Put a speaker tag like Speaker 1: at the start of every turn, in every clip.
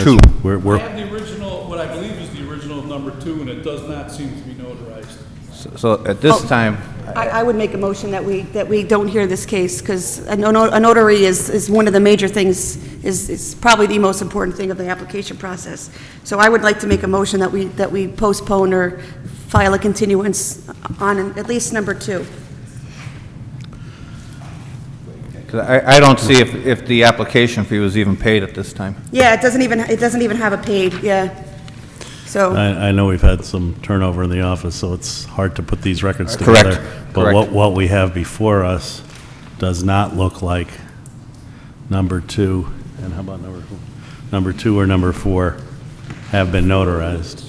Speaker 1: Two.
Speaker 2: We're,
Speaker 3: I
Speaker 2: we're,
Speaker 3: have the original, what I believe is the original of number two, and it does not seem to be notarized.
Speaker 1: So at this time,
Speaker 4: I, I would make a motion that we, that we don't hear this case, because a no- a notary is, is one of the major things, is, is probably the most important thing of the application process. So I would like to make a motion that we, that we postpone or file a continuance on at least number two.
Speaker 1: 'cause I, I don't see if, if the application fee was even paid at this time.
Speaker 4: Yeah, it doesn't even, it doesn't even have a paid, yeah. So,
Speaker 2: I, I know we've had some turnover in the office, so it's hard to put these records
Speaker 1: Correct,
Speaker 2: together. But what,
Speaker 1: correct.
Speaker 2: what we have before us does not look like number two, and how about number, number two or number four have been notarized.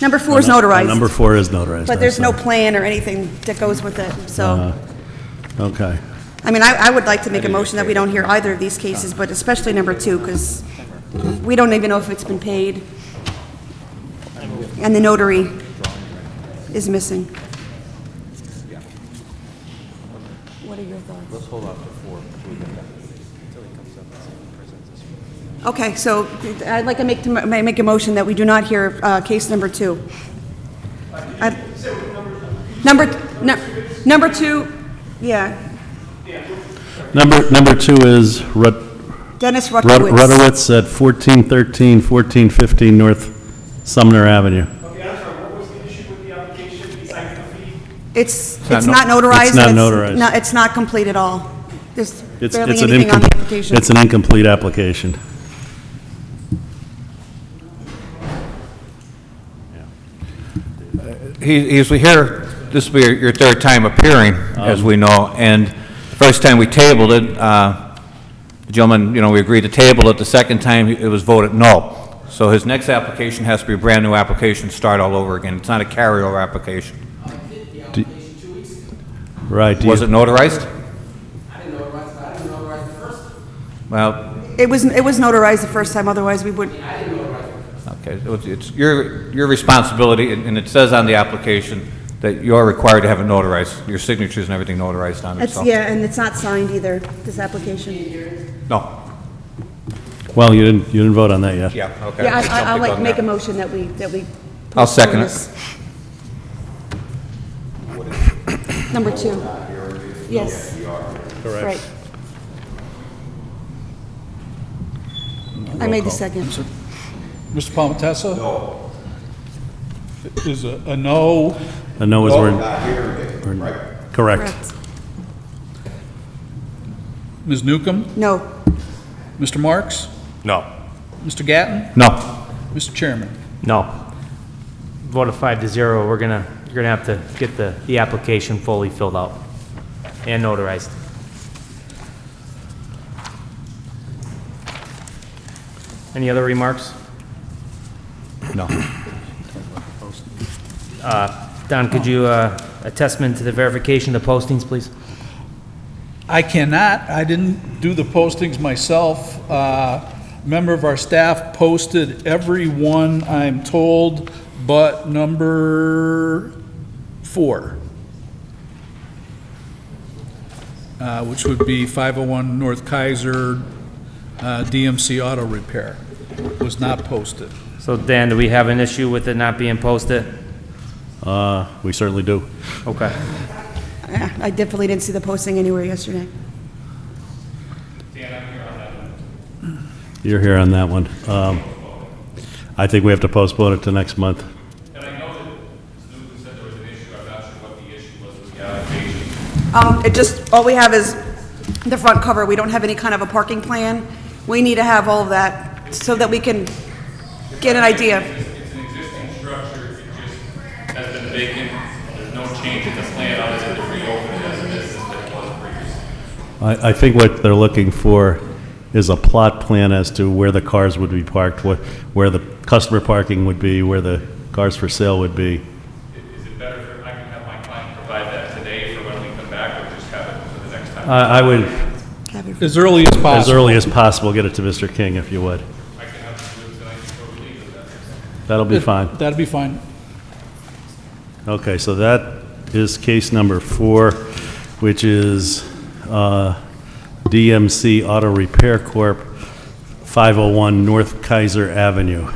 Speaker 4: number four is
Speaker 2: Number
Speaker 4: notarized,
Speaker 2: four Uh, is notarized.
Speaker 4: but there's
Speaker 2: I'm
Speaker 4: no
Speaker 2: sorry.
Speaker 4: plan or anything that goes with it, so.
Speaker 2: Okay.
Speaker 4: I mean, I, I would like to make a motion that we don't hear either of these cases, but especially number two, because we don't even know if it's been paid. And the notary is missing. What are your thoughts? Let's hold off to four. Okay, so I'd like to make, to ma- make a motion that we do not hear, uh, case number two. I- Number, nu- number two, yeah,
Speaker 2: Number, number two is Rut,
Speaker 4: Dennis
Speaker 2: Rut-
Speaker 4: Rutkowitz.
Speaker 2: Rudowitz at 1413, 1415 North Sumner Avenue.
Speaker 5: Okay, I'm sorry, what was the issue with the application besides the fee?
Speaker 4: It's,
Speaker 1: not
Speaker 4: it's
Speaker 1: no-
Speaker 4: not notarized.
Speaker 2: It's not
Speaker 4: and
Speaker 2: notarized.
Speaker 4: no- It's not complete at all. There's
Speaker 2: It's
Speaker 4: barely
Speaker 2: it's an
Speaker 4: anything on the
Speaker 2: incom-
Speaker 4: application.
Speaker 2: It's an incomplete application.
Speaker 1: He, he's here, this will be your third time appearing,
Speaker 2: Um.
Speaker 1: as we know, and the first time we tabled it, uh, the gentleman, you know, we agreed to table it, the second time it was voted no. So his next application has to be a brand-new application, start all over again. It's not a carryover application.
Speaker 2: Right. do you-
Speaker 1: Was it notarized? Well,
Speaker 4: It was, it was notarized the first time, otherwise we would,
Speaker 1: Okay, so it's- it's your, your responsibility, and and it says on the application that you are required to have it notarized, your signatures and everything notarized on it,
Speaker 4: it's,
Speaker 1: so.
Speaker 4: yeah, and it's not signed either, this application.
Speaker 1: No,
Speaker 2: Well, you didn't, you didn't vote on that yet.
Speaker 1: yeah, okay.
Speaker 4: Yeah, I- I- I'll
Speaker 1: Something
Speaker 4: like,
Speaker 1: on
Speaker 4: make
Speaker 1: that.
Speaker 4: a motion that we, that we.
Speaker 1: I'll second it.
Speaker 4: postpone this. Number two. Yes. Correct. I made the second.
Speaker 3: Mr. Palmetessa? No. Is a, a no,
Speaker 2: A no
Speaker 1: Oh,
Speaker 2: is where... Correct.
Speaker 4: Correct.
Speaker 3: Ms. Newcomb,
Speaker 4: No.
Speaker 3: Mr. Marks,
Speaker 6: No.
Speaker 3: Mr. Gatton,
Speaker 1: No,
Speaker 3: Mr. Chairman.
Speaker 6: No. Vote of five to zero, we're gonna, you're gonna have to get the, the application fully filled out and notarized. Any other remarks?
Speaker 1: no.
Speaker 6: Don, could you, uh, attestment to the verification of the postings, please?
Speaker 3: I cannot, I didn't do the postings myself. Uh, Member of our staff posted every one, I'm told, but number four, uh, which would be 501 North Kaiser uh, DMC Auto Repair, was not posted.
Speaker 6: So Dan, do we have an issue with it not being posted?
Speaker 2: Uh, We certainly do.
Speaker 6: Okay.
Speaker 4: Yeah, I definitely didn't see the posting anywhere yesterday.
Speaker 2: You're here on that one. Um, I think we have to postpone it to next month.
Speaker 7: And I know that Newton said there was an issue, I'm not sure what the issue was with the application.
Speaker 4: Um, it just, all we have is the front cover, we don't have any kind of a parking plan. We need to have all of that so that we can get an idea.
Speaker 7: It's an existing structure, it just has been vacant, there's no change in the plan, other than to reopen it as a business that it was previously.
Speaker 2: I, I think what they're looking for is a plot plan as to where the cars would be parked, what, where the customer parking would be, where the cars for sale would be.
Speaker 7: I- Is it better if I can have my client provide that today for when we come back, or just have it for the next time?
Speaker 2: I, I would,
Speaker 3: As early as
Speaker 2: as
Speaker 3: possible.
Speaker 2: early as possible, get it to Mr. King if you would.
Speaker 7: I can have it do it tonight before we leave, if that's.
Speaker 2: That'll be fine.
Speaker 3: That'd be fine.
Speaker 2: Okay, so that is case number four, which is uh, DMC Auto Repair Corp., 501 North Kaiser Avenue.